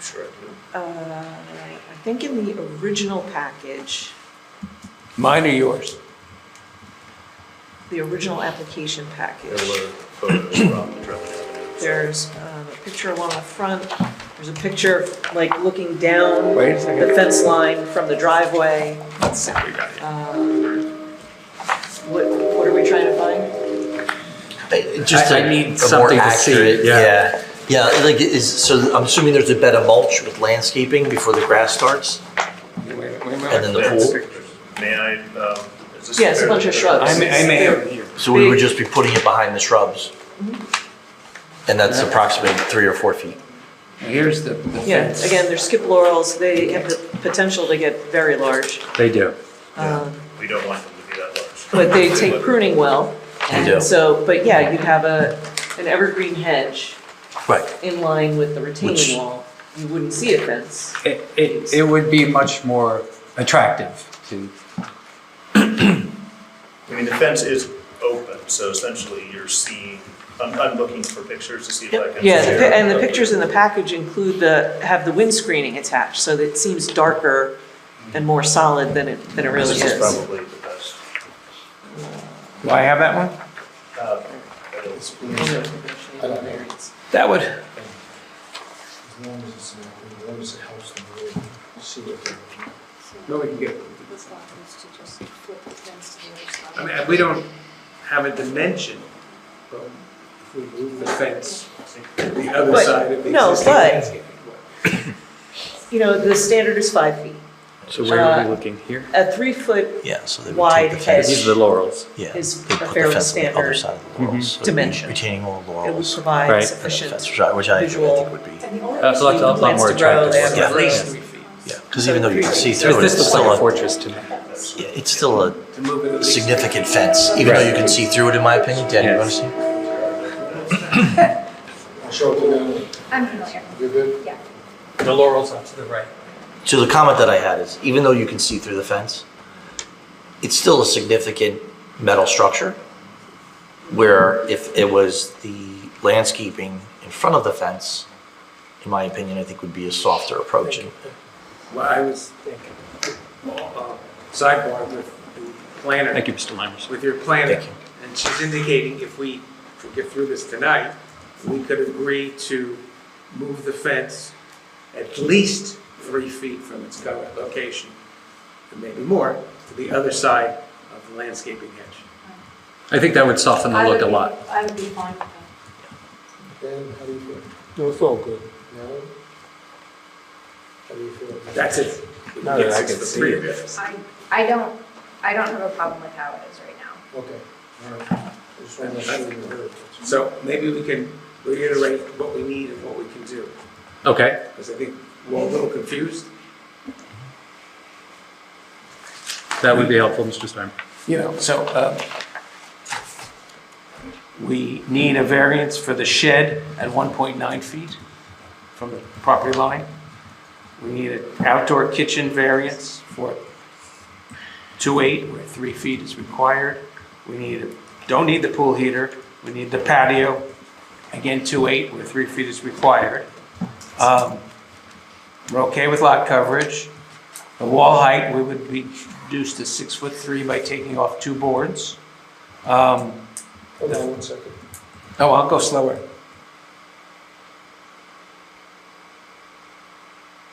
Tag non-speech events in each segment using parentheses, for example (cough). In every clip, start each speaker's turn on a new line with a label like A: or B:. A: Sure I do.
B: Uh, I think in the original package,
C: Mine or yours?
B: the original application package.
A: There were photos from Drummond Avenue.
B: There's um, a picture along the front, there's a picture like looking down
C: Wait a second.
B: the fence line from the driveway. Um,
A: Let's see what we got here.
B: What, what are we trying to find?
D: Just
E: I-
D: a-
E: I
D: a more
E: need something to see it,
D: accurate-
E: yeah.
D: Yeah, Yeah, like, is, so I'm assuming there's a bed of mulch with landscaping before the grass starts? And then the pool?
A: May I, um, is this?
B: Yeah, it's a bunch of shrubs.
C: I may, I may have it here.
D: So we would just be putting it behind the shrubs? And that's approximately three or four feet?
C: Here's the the
B: Yeah,
C: fence.
B: again, they're skip laurels, they have the potential to get very large,
E: They do.
B: um,
A: We don't want them to be that large. (laughs)
B: but they take pruning well.
D: They
B: and
D: do.
B: So, but yeah, you'd have a, an evergreen hedge
D: Right.
B: in line with the retaining
D: Which-
B: wall. You wouldn't see a fence.
E: It, it, it would be much more attractive to,
A: I mean, the fence is open, so essentially you're seeing, I'm, I'm looking for pictures to see if I can.
B: Yeah, the pi- and the pictures in the package include the, have the wind screening attached, so that it seems darker and more solid than it, than it really
A: This is
B: is.
A: probably the best.
C: Do I have that one?
A: uh, photos.
C: That would,
F: As long as it's, uh, as long as it helps them, we'll see what they're.
C: no, we can get,
G: This lot is to just flip the fence to the other side.
C: I mean, we don't have a dimension, but if we move the fence to the other
B: But-
C: side of the
B: no,
C: existing
B: but-
C: landscape.
B: You know, the standard is five feet.
H: So where are
B: Uh,
H: we looking here?
B: A three-foot
D: Yeah, so they would
B: Wide
D: take the
B: hedge.
H: These
D: fence.
H: are the laurels.
D: Yeah,
B: is
D: they
B: a
D: put the
B: fairly
D: fence on the other
B: standard
D: side of the laurels. so it'd be
B: dimension.
D: Retaining wall
B: it would
D: laurels.
B: provide
H: Right.
D: and then the
B: sufficient.
D: fence, Which I, which I I
B: visual-
D: think would be,
G: And the only
H: That's a lot, a lot
B: Plants
H: more
B: to grow,
H: attractive.
B: they have
H: looking.
D: at least
B: three
C: feet.
D: yeah, because even though you can see through it,
H: This
D: it's
H: looks like a
D: still a,
H: fortress to me.
D: yeah, it's still a
C: To move it at least-
D: significant fence, even though you can see through it, in my opinion. Dan, you want to see?
F: Show it to them,
G: I'm familiar,
F: you're good?
G: yeah.
H: The laurels are to the right.
D: So the comment that I had is, even though you can see through the fence, it's still a significant metal structure, where if it was the landscaping in front of the fence, in my opinion, I think would be a softer approach. And
C: Well, I was thinking, uh, sidebar with the planner.
H: Thank you, Mr. Limers.
C: with your planner.
D: Thank you.
C: And she's indicating if we, if we get through this tonight, we could agree to move the fence at least three feet from its current location, and maybe more, to the other side of the landscaping hedge.
H: I think that would soften the
G: I would
H: look a
G: be-
H: lot.
G: I would be fine with that.
F: Dan, how do you feel?
I: No, it's all good.
F: No? How do you feel?
C: That's it.
I: Now that I
C: It's
I: can
C: the
I: see
C: three
I: it.
C: of us.
G: I, I don't, I don't have a problem with how it is right now.
F: Okay, all right. I Just want to make sure you heard.
C: So maybe we can reiterate what we need and what we can do,
H: Okay,
C: because I think we're a little confused.
H: that would be helpful, Mr. Steinberg.
C: you know, so, uh, we need a variance for the shed at 1.9 feet from the property line. We need an outdoor kitchen variance for 2.8, where 3 feet is required. We need, don't need the pool heater, we need the patio, again, 2.8, where 3 feet is required. Um, We're okay with lot coverage. The wall height, we would reduce to six foot three by taking off two boards. Um,
F: Hold on one second.
C: Oh, I'll go slower.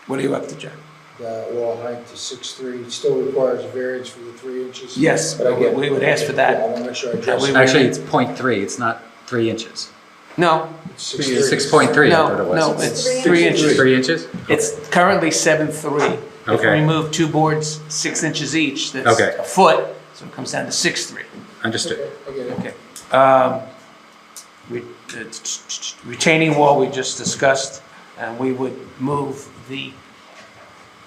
C: What are you up to, Jack?
F: The wall height to six-three, still requires a variance for the three inches.
C: Yes,
F: But I get-
C: we would ask for
F: Yeah, I
C: that.
F: want to make sure I
C: That
F: address
C: we
F: it.
C: would-
H: Actually, it's 0.3, it's not 3 inches.
C: No,
F: It's
H: 6.3, I thought it
C: no,
H: was.
C: no, it's three inches.
H: 3 inches?
C: It's currently seven three. If we
H: Okay.
C: remove two boards, six inches each, that's
H: Okay.
C: a foot, so it comes down to six three.
H: Understood.
F: Okay, I get it.
C: Okay. Um, re- uh, t- t- t- Retaining wall, we just discussed, and we would move the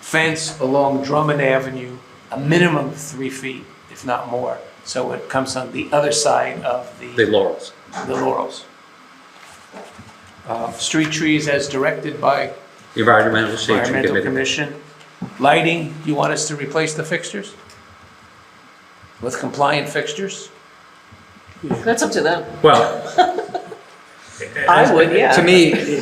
C: fence along Drummond Avenue a minimum of three feet, if not more, so it comes on the other side of
H: The laurels.
C: the Laurels. Uh, Street trees as directed by
H: Environmental shade tree
C: Environmental
H: committee.
C: Commission. Lighting, you want us to replace the fixtures? With compliant fixtures?
B: That's up to them.
H: Well,
C: Uh,
B: I would, yeah.
H: to me,